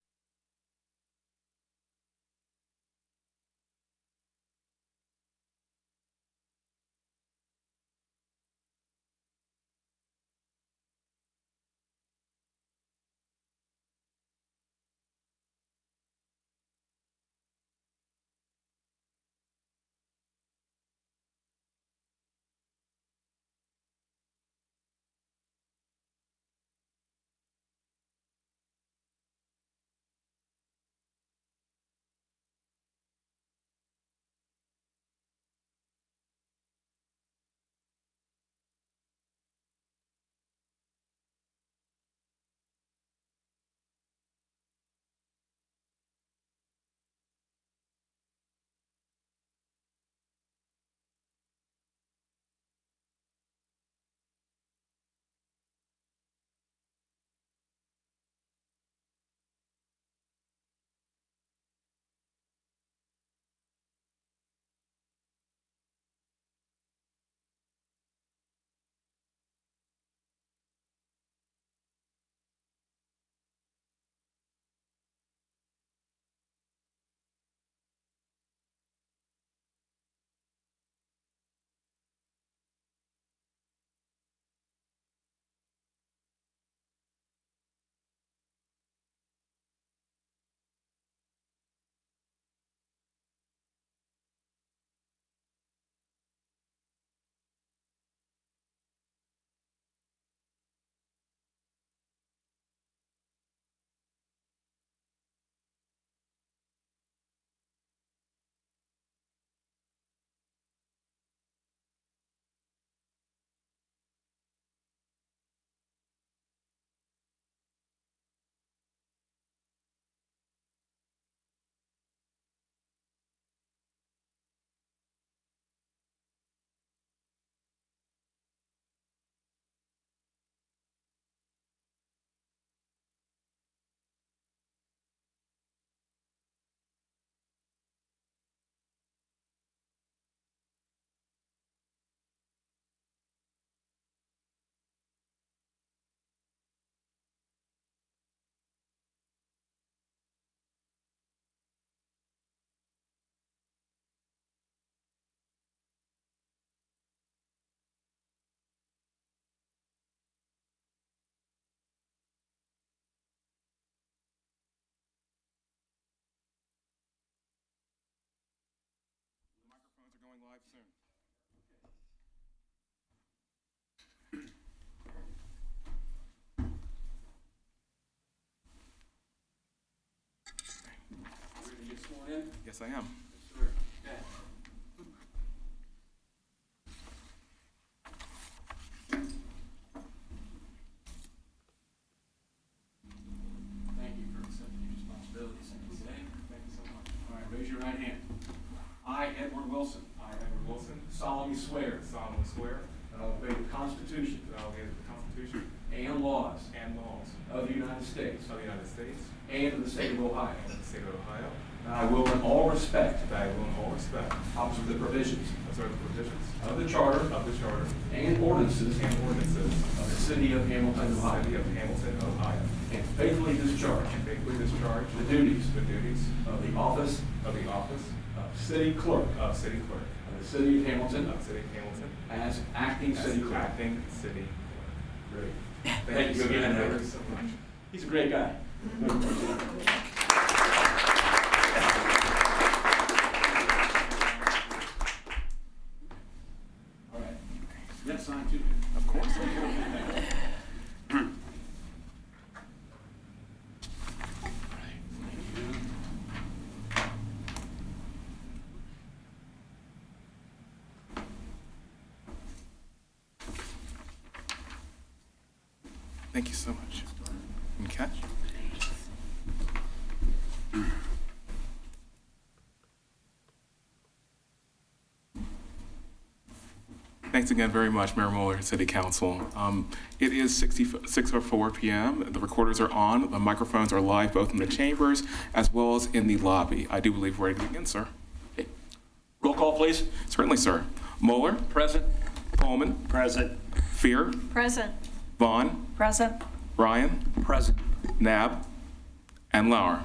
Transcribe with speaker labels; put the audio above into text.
Speaker 1: out soon.
Speaker 2: Ready to get sworn in?
Speaker 1: Yes, I am.
Speaker 2: Yes, sir. Okay. Thank you for accepting your responsibilities today. Thank you so much. All right, raise your right hand. I, Edward Wilson,
Speaker 3: I, Edward Wilson,
Speaker 2: solemnly swear
Speaker 3: solemnly swear
Speaker 2: that I will obey the Constitution
Speaker 3: that I will obey the Constitution
Speaker 2: and laws
Speaker 3: and laws
Speaker 2: of the United States
Speaker 3: of the United States
Speaker 2: and of the state of Ohio.
Speaker 3: and the state of Ohio,
Speaker 2: And I will in all respect
Speaker 3: that I will in all respect
Speaker 2: observe the provisions
Speaker 3: observe the provisions
Speaker 2: of the Charter
Speaker 3: of the Charter
Speaker 2: and ordinances
Speaker 3: and ordinances
Speaker 2: of the City of Hamilton,
Speaker 3: of the
Speaker 2: Ohio,
Speaker 3: City of Hamilton, Ohio,
Speaker 2: and faithfully discharge
Speaker 3: and faithfully discharge
Speaker 2: the duties
Speaker 3: the duties
Speaker 2: of the office
Speaker 3: of the office
Speaker 2: of City Clerk
Speaker 3: of City Clerk
Speaker 2: of the City of Hamilton
Speaker 3: of the City of Hamilton
Speaker 2: as acting
Speaker 3: as
Speaker 2: City Clerk.
Speaker 3: acting City
Speaker 2: Great.
Speaker 3: Clerk.
Speaker 2: Thank you again,
Speaker 3: Thank
Speaker 2: Edward.
Speaker 3: you so much.
Speaker 2: He's a great guy. All right. Yes, sign too.
Speaker 1: Of course. Thank you so much. And catch. Thanks again very much, Mayor Mueller, and City Council. Um, It is 6:04 PM. The recorders are on. The microphones are live both in the chambers as well as in the lobby. I do believe we're ready to begin, sir.
Speaker 2: Roll call, please.
Speaker 1: Certainly, sir. Mueller,
Speaker 2: Present.
Speaker 1: Pullman,
Speaker 2: Present.
Speaker 1: Fear,
Speaker 4: Present.
Speaker 1: Vaughn,
Speaker 4: Present.
Speaker 1: Ryan,
Speaker 2: Present.
Speaker 1: Nab, and Lauer.